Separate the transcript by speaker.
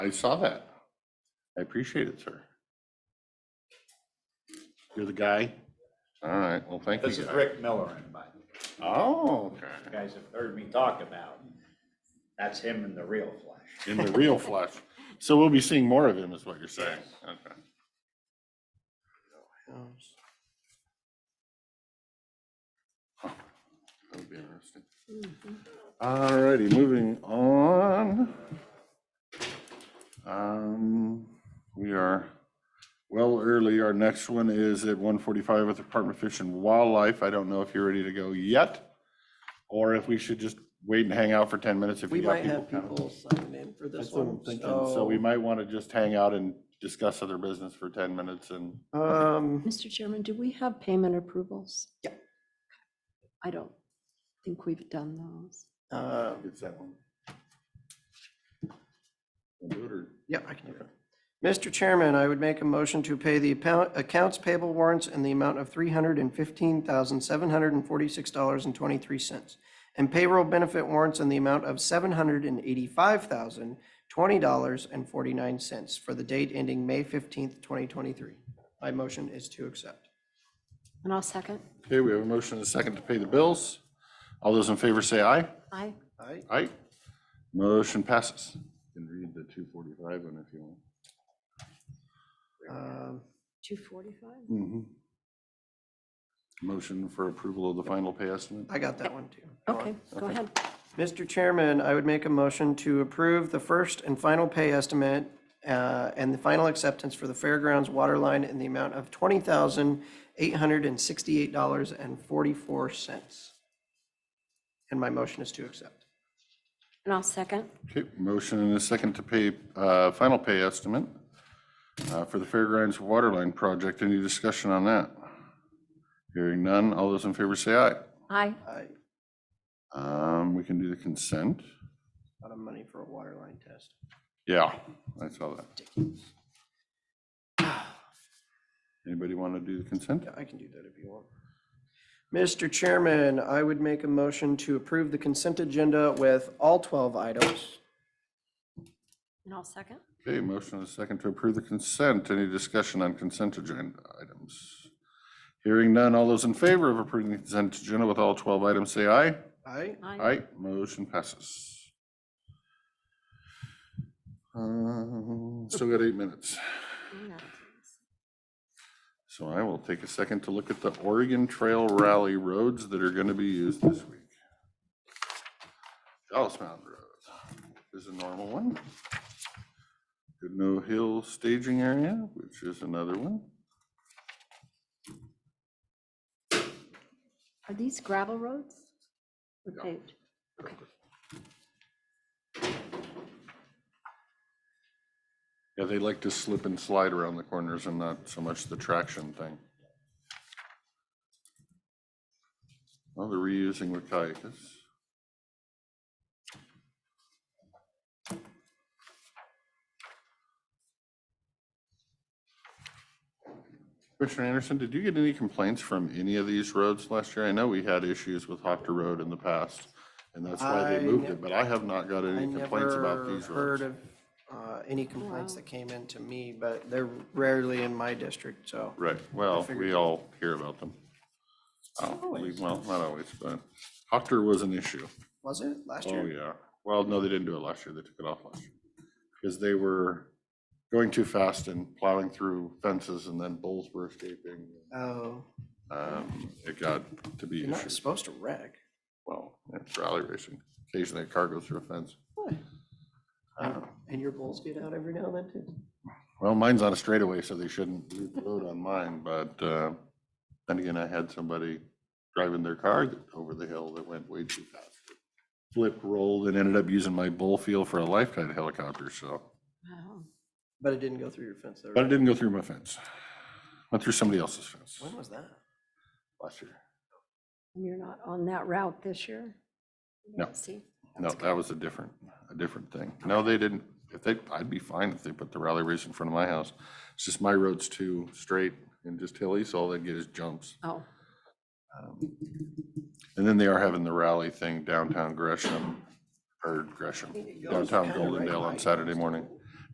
Speaker 1: I saw that. I appreciate it, sir.
Speaker 2: You're the guy?
Speaker 1: All right, well, thank you.
Speaker 3: This is
Speaker 1: guys.
Speaker 3: Rick Miller, anybody,
Speaker 1: Oh, okay.
Speaker 3: you guys have heard me talk about. That's him in the real flesh.
Speaker 1: in the real flesh. So we'll be seeing more of him, is what you're saying. Okay. Huh, That would be interesting. Mm-hmm. All righty, moving on. Um, We are well early. Our next one is at 1:45 with the Department of Fish and Wildlife. I don't know if you're ready to go yet, or if we should just wait and hang out for 10 minutes if
Speaker 4: We
Speaker 1: you got
Speaker 4: might
Speaker 1: people
Speaker 4: have
Speaker 1: coming.
Speaker 4: people sign in for this
Speaker 2: That's
Speaker 4: oh.
Speaker 2: what I'm
Speaker 4: one,
Speaker 2: thinking,
Speaker 1: And so we
Speaker 4: so.
Speaker 1: might want to just hang out and discuss other business for 10 minutes and,
Speaker 4: Um,
Speaker 5: Mr. Chairman, do we have payment approvals?
Speaker 4: Yeah.
Speaker 5: I don't think we've done those.
Speaker 4: uh,
Speaker 1: it's that one. We'll do it, or-
Speaker 4: yeah, I can do that. Mr. Chairman, I would make a motion to pay the account- accounts payable warrants in the amount of $315,746.23 and payroll benefit warrants in the amount of $785,020.49 for the date ending May 15th, 2023. My motion is to accept.
Speaker 5: And I'll second.
Speaker 1: Okay, we have a motion and a second to pay the bills. All those in favor say aye.
Speaker 5: Aye.
Speaker 4: Aye.
Speaker 1: Aye. Motion passes. You can read the 245 one if you want.
Speaker 4: Um,
Speaker 5: 245?
Speaker 1: Mhm. Motion for approval of the final pay estimate.
Speaker 4: I got that one too.
Speaker 5: Okay, go ahead.
Speaker 4: Mr. Chairman, I would make a motion to approve the first and final pay estimate uh, and the final acceptance for the Fairgrounds water line in the amount of $20,868.44. And my motion is to accept.
Speaker 5: And I'll second.
Speaker 1: Okay, motion and a second to pay, uh, final pay estimate uh, for the Fairgrounds Waterline Project. Any discussion on that? Hearing none. All those in favor say aye.
Speaker 5: Aye.
Speaker 4: I
Speaker 1: Um, We can do the consent.
Speaker 4: out of money for a water line test.
Speaker 1: Yeah, I saw that. Anybody want to do the consent?
Speaker 4: Yeah, I can do that if you want. Mr. Chairman, I would make a motion to approve the consent agenda with all 12 items.
Speaker 5: And I'll second.
Speaker 1: Okay, motion and a second to approve the consent. Any discussion on consent agenda items? Hearing none. All those in favor of approving the consent agenda with all 12 items, say aye.
Speaker 4: Aye?
Speaker 5: Aye.
Speaker 1: Aye, motion passes. Um, Still got eight minutes, so I will take a second to look at the Oregon Trail Rally roads that are going to be used this week. Dallas Mountain Road is a normal one. Goodnoe Hill Staging Area, which is another one.
Speaker 5: Are these gravel roads? Or paved?
Speaker 1: Yeah, they like to slip and slide around the corners and not so much the traction thing. Well, they're reusing with Wacaikas. Commissioner Anderson, did you get any complaints from any of these roads last year? I know we had issues with Hopter Road in the past, and that's why
Speaker 4: I
Speaker 1: they moved
Speaker 4: ne-
Speaker 1: it, but I have not got
Speaker 4: I
Speaker 1: any complaints about
Speaker 4: never
Speaker 1: these roads.
Speaker 4: heard of uh, any complaints
Speaker 5: Wow.
Speaker 4: that came in to me, but they're rarely in my district, so.
Speaker 1: Right, well, we
Speaker 4: figured.
Speaker 1: all hear about them. Oh, we- Well, not always, but Hocker was an issue.
Speaker 4: Was it last
Speaker 1: Oh,
Speaker 4: year?
Speaker 1: yeah. Well, no, they didn't do it last year. They took it off last year. Because they were going too fast and plowing through fences and then bulls were escaping.
Speaker 4: Oh,
Speaker 1: Um, It got to be
Speaker 4: you're not
Speaker 1: issues.
Speaker 4: supposed to wreck.
Speaker 1: Well, it's rally racing. Occasionally a car goes through a fence.
Speaker 4: And and your bulls get out every now and then too?
Speaker 1: Well, mine's on a straightaway, so they shouldn't leave the road on mine, but uh, then again, I had somebody driving their car over the hill that went way too fast. Flipped, rolled, and ended up using my bull field for a life kite helicopter, so,
Speaker 5: Wow.
Speaker 4: But it didn't go through your fence though.
Speaker 1: but it
Speaker 4: right?
Speaker 1: didn't go through my fence. Went through somebody else's fence
Speaker 4: When was that?
Speaker 1: last year.
Speaker 5: And you're not on that route this year?
Speaker 1: No.
Speaker 5: See?
Speaker 1: No, that was a different, a different thing. No, they didn't, if they, I'd be fine if they put the rally race in front of my house. It's just my road's too straight and just hilly, so all they get is jumps.
Speaker 5: Oh,
Speaker 1: And then they are having the rally thing downtown Gresham, or Gresham, downtown Goldendale on Saturday morning.